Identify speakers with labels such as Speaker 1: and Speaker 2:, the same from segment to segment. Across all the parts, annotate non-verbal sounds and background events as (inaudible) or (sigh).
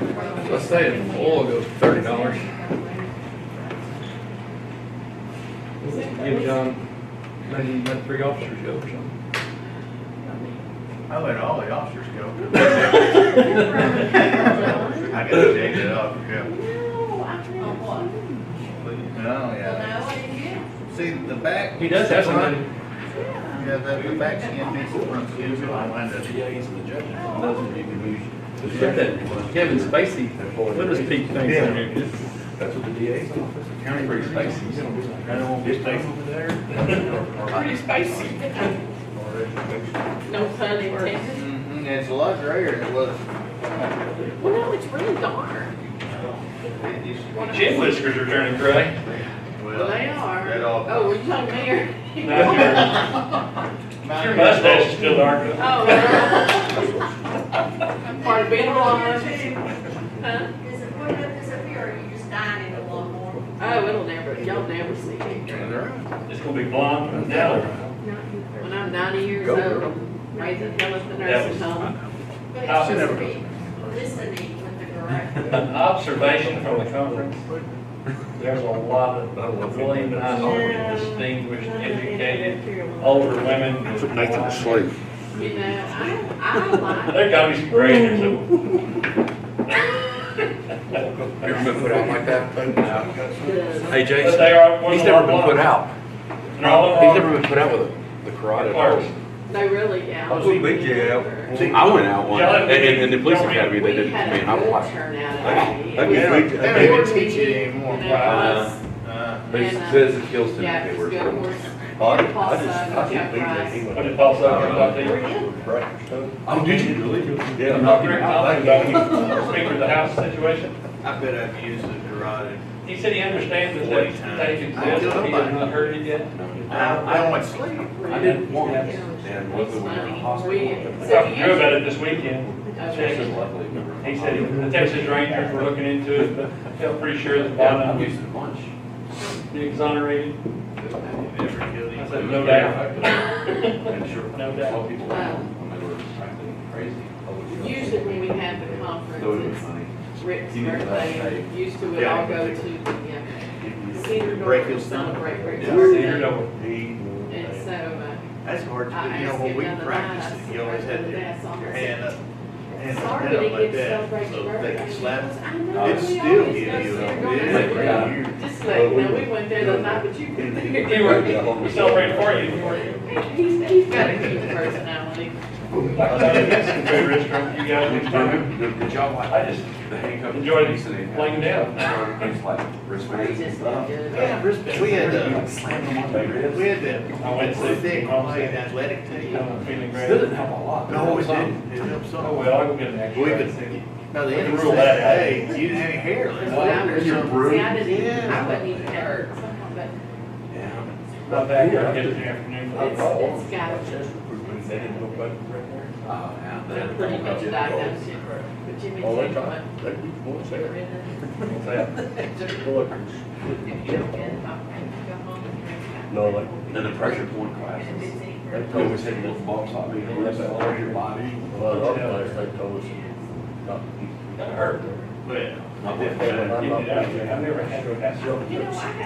Speaker 1: Let's say if oil goes to thirty dollars. Give John, maybe let three officers go or something.
Speaker 2: I let all the officers go. (laughs) I gotta take it off, yeah.
Speaker 3: On what?
Speaker 2: No, Oh, yeah.
Speaker 3: Well, no, I didn't
Speaker 2: See, the back.
Speaker 1: He does have somebody.
Speaker 2: Yeah, the, the back skin makes the front skin go on, doesn't it?
Speaker 4: Yeah, he's the judge. Doesn't he can use-
Speaker 1: Get that Kevin Spacey, what does Pete think?
Speaker 4: That's what the DA's office. the County
Speaker 1: Pretty spicy.
Speaker 4: His face over there.
Speaker 5: Pretty spicy. No pun intended.
Speaker 2: Mhm, it's a lot grayer than it was.
Speaker 5: Well, no, it's really dark.
Speaker 2: It used to be.
Speaker 1: Chin whiskers are turning gray.
Speaker 2: Well,
Speaker 5: Well, they are.
Speaker 2: That all.
Speaker 5: Oh, were you talking about your?
Speaker 1: Your mustache is still dark.
Speaker 5: Oh, well. part of being alive. Huh?
Speaker 3: Is it put up this up here, or you just dying it a lot more?
Speaker 5: Oh, it'll never, y'all never see me.
Speaker 1: It's gonna be blonde and yellow.
Speaker 5: When I'm ninety years
Speaker 4: Go,
Speaker 5: old,
Speaker 4: girl.
Speaker 5: I'm raising hell at the
Speaker 1: That
Speaker 5: nursing
Speaker 1: was-
Speaker 5: home.
Speaker 3: But
Speaker 1: Uh,
Speaker 3: it's just be listening with the garage.
Speaker 1: An observation from the conference. There's a lot of really nice, distinguished, educated, older women.
Speaker 6: Nathan to sleep.
Speaker 5: You know, I, I
Speaker 4: (laughs)
Speaker 5: like,
Speaker 1: There gotta be some gray in there somewhere.
Speaker 6: Never been put out like that.
Speaker 5: the-
Speaker 6: Hey
Speaker 1: But
Speaker 6: Jason,
Speaker 1: they are, one
Speaker 6: he's
Speaker 1: of our
Speaker 6: never been put
Speaker 1: blondes.
Speaker 6: out.
Speaker 1: And all of
Speaker 6: He's
Speaker 1: our,
Speaker 6: never been put out with a- the karate. at all.
Speaker 1: Clerks.
Speaker 5: they really, yeah.
Speaker 4: I'll see Big J out.
Speaker 6: See, I went out one, and, and in the police academy, they didn't, I
Speaker 5: We
Speaker 6: mean,
Speaker 5: had a
Speaker 6: I'm
Speaker 5: good
Speaker 6: like,
Speaker 5: turnout
Speaker 4: I-
Speaker 5: at the
Speaker 4: I
Speaker 5: end.
Speaker 4: mean,
Speaker 2: They don't- they don't even teach it
Speaker 5: You
Speaker 2: anymore. Right.
Speaker 5: know, us-
Speaker 2: Uh,
Speaker 5: But he says it kills him. Yeah, it's good horse. Paul Sugg, Chuck Price.
Speaker 1: what did Paul Sutton about the,
Speaker 4: Oh, did you really? Yeah.
Speaker 1: I'm not very confident about the Speaker of the House situation?
Speaker 2: I bet I've used the garage.
Speaker 1: He said he understands that they, that they exist, but he has not heard it yet.
Speaker 2: I, I want sleep.
Speaker 4: I did once, and whether we were in the
Speaker 1: I
Speaker 4: hospital.
Speaker 1: talked to Drew about it this weekend.
Speaker 4: This is lovely.
Speaker 1: He said, the Texas Rangers were looking into it, but felt pretty sure that
Speaker 4: Yeah, I'm
Speaker 1: Bono
Speaker 4: used to lunch.
Speaker 1: would be exonerated.
Speaker 2: Never killed
Speaker 1: I
Speaker 2: him.
Speaker 1: said, no doubt.
Speaker 4: And sure,
Speaker 1: No
Speaker 4: I saw people
Speaker 5: doubt.
Speaker 4: when they were acting crazy. Oh,
Speaker 5: Usually when we had the
Speaker 4: So it was
Speaker 5: conference,
Speaker 4: funny.
Speaker 5: it's Rick's birthday, and used to, we'd all go to the uh, Cedar
Speaker 2: Break
Speaker 5: Door,
Speaker 2: his thumb.
Speaker 5: celebrate Rick's
Speaker 4: Yeah.
Speaker 5: birthday.
Speaker 1: Cedar Door.
Speaker 5: And so, uh,
Speaker 2: That's hard to
Speaker 5: I
Speaker 2: do, you know,
Speaker 5: asked
Speaker 2: when
Speaker 5: him
Speaker 2: we
Speaker 5: the other night, I
Speaker 2: practiced,
Speaker 5: said,
Speaker 2: you always had your
Speaker 5: "Where's the dad's office?"
Speaker 2: hand up, hand up,
Speaker 5: sorry
Speaker 2: hand
Speaker 5: that he
Speaker 2: up like
Speaker 5: gets to
Speaker 2: that,
Speaker 5: celebrate your
Speaker 2: so they
Speaker 5: birthday.
Speaker 2: can slap.
Speaker 5: I
Speaker 1: Oh,
Speaker 5: know,
Speaker 2: It
Speaker 5: we
Speaker 2: still
Speaker 5: always
Speaker 2: gives you a
Speaker 5: go Cedar Door.
Speaker 2: big
Speaker 4: Yeah.
Speaker 2: year.
Speaker 5: Just like, you know, we went there the night, but you couldn't be
Speaker 1: You were, we celebrated for you. You were-
Speaker 5: He's, he's got a cute personality.
Speaker 1: I thought it was a good restaurant. You guys
Speaker 4: Good
Speaker 1: were
Speaker 4: job.
Speaker 1: fine.
Speaker 4: Good- good job.
Speaker 1: I just
Speaker 4: The handcuff.
Speaker 1: enjoyed
Speaker 4: He said he had-
Speaker 1: laying down.
Speaker 4: It's like wristband.
Speaker 5: He's just a
Speaker 2: We
Speaker 5: good.
Speaker 2: had, wrist- we had,
Speaker 4: You
Speaker 2: uh,
Speaker 4: slam them on the
Speaker 2: we
Speaker 4: ribs.
Speaker 2: had that,
Speaker 1: I went to-
Speaker 2: thick, white athletic team.
Speaker 1: I'm feeling
Speaker 4: Still
Speaker 1: great.
Speaker 4: didn't help a lot.
Speaker 2: No, it didn't, it helped
Speaker 1: Oh,
Speaker 2: so.
Speaker 1: well, I'll go get an
Speaker 2: We
Speaker 1: extra.
Speaker 2: could, no, the
Speaker 1: We
Speaker 2: end
Speaker 1: can
Speaker 2: of
Speaker 1: rule that out.
Speaker 2: hey, you didn't have any hair
Speaker 5: That's
Speaker 2: left.
Speaker 5: what I was, see,
Speaker 4: You're
Speaker 5: I
Speaker 4: rude.
Speaker 5: didn't, even- I
Speaker 2: Yeah.
Speaker 5: wasn't even hurt, but
Speaker 4: Yeah.
Speaker 1: My back, I get it in the afternoon. for
Speaker 5: it's,
Speaker 1: the-
Speaker 5: it's got,
Speaker 4: Oh, yeah.
Speaker 5: they're pretty much diagnosed. it. But Jimmy took one.
Speaker 1: What's that?
Speaker 5: If you don't get it, I'll go home and.
Speaker 7: No, like-
Speaker 4: Then the pressure point
Speaker 5: And
Speaker 4: classes.
Speaker 5: it's in-
Speaker 7: They
Speaker 4: They
Speaker 7: told
Speaker 4: always
Speaker 7: us,
Speaker 4: had little bumps on me, and that's all over your body.
Speaker 7: well, our place, they told us not to eat.
Speaker 1: That hurt.
Speaker 2: Well,
Speaker 4: My
Speaker 7: They were not
Speaker 4: wife-
Speaker 1: uh, Get it out
Speaker 7: allowed
Speaker 1: of
Speaker 7: to
Speaker 1: there. I've
Speaker 7: eat.
Speaker 1: never had to have something.
Speaker 5: You know, I had, I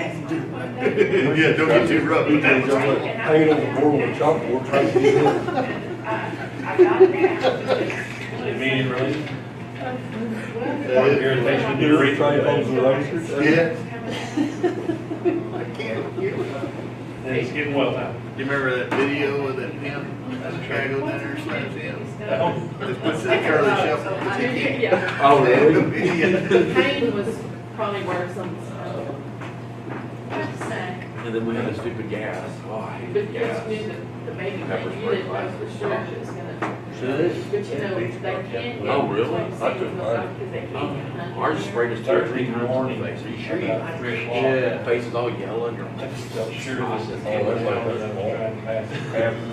Speaker 5: had one day,
Speaker 2: yeah, don't get too rough.
Speaker 7: These days, I'm like hanging on the board with a chalkboard trying to do it.
Speaker 5: I got it now.
Speaker 1: Immediate release.
Speaker 7: They do it, try to hold the lasers.
Speaker 2: Yeah. I can't, get it.
Speaker 1: It's getting well now.
Speaker 2: You remember that video of that him, that Chicago dinner, slaps him?
Speaker 1: Oh,
Speaker 2: Just puts that Charlie Shuffle.
Speaker 5: I did, yeah.
Speaker 4: Oh, really?
Speaker 1: (laughs)
Speaker 2: Yeah.
Speaker 5: Pain was probably worse on, uh,
Speaker 3: What's that?
Speaker 4: And then we had the stupid gas. Oh, I
Speaker 5: but
Speaker 4: hated
Speaker 5: you just
Speaker 4: gas.
Speaker 5: knew that the baby thing, you didn't know for sure if it was gonna. But you know, they can. get-
Speaker 4: Oh, really?
Speaker 5: Like, say,
Speaker 7: I took mine.
Speaker 5: because they can't get
Speaker 4: Oh, Ours sprayed us two or three
Speaker 1: Thursday
Speaker 4: times.
Speaker 1: morning.
Speaker 4: Are you sure you
Speaker 1: about three o'clock.
Speaker 4: Yeah. Face is all yellow. and you're
Speaker 1: I
Speaker 4: like,
Speaker 1: just felt sure this is.
Speaker 7: Oh, that's like that wall. Half the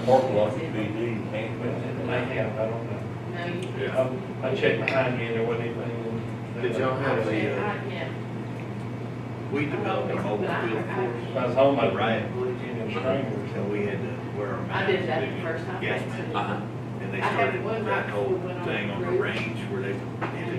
Speaker 7: parking lot would be eating pancakes.
Speaker 1: May have, I don't know.
Speaker 5: No, you.
Speaker 1: I I checked behind me and there wasn't anything.
Speaker 2: Did y'all have the,
Speaker 5: Yeah,
Speaker 2: uh,
Speaker 5: I- yeah.
Speaker 2: we developed a mobile field force,
Speaker 1: If I was home, I'd
Speaker 2: Right.
Speaker 1: Virginia strangler.
Speaker 2: so we had to wear a mask.
Speaker 5: I did that the first time.
Speaker 2: Gas
Speaker 5: I
Speaker 2: mask.
Speaker 5: took it.
Speaker 4: Uh-huh.
Speaker 2: And
Speaker 5: I
Speaker 2: they
Speaker 5: had
Speaker 2: started
Speaker 5: one right
Speaker 2: that whole
Speaker 5: before when I
Speaker 2: thing on the
Speaker 5: grew.
Speaker 2: range where they, would-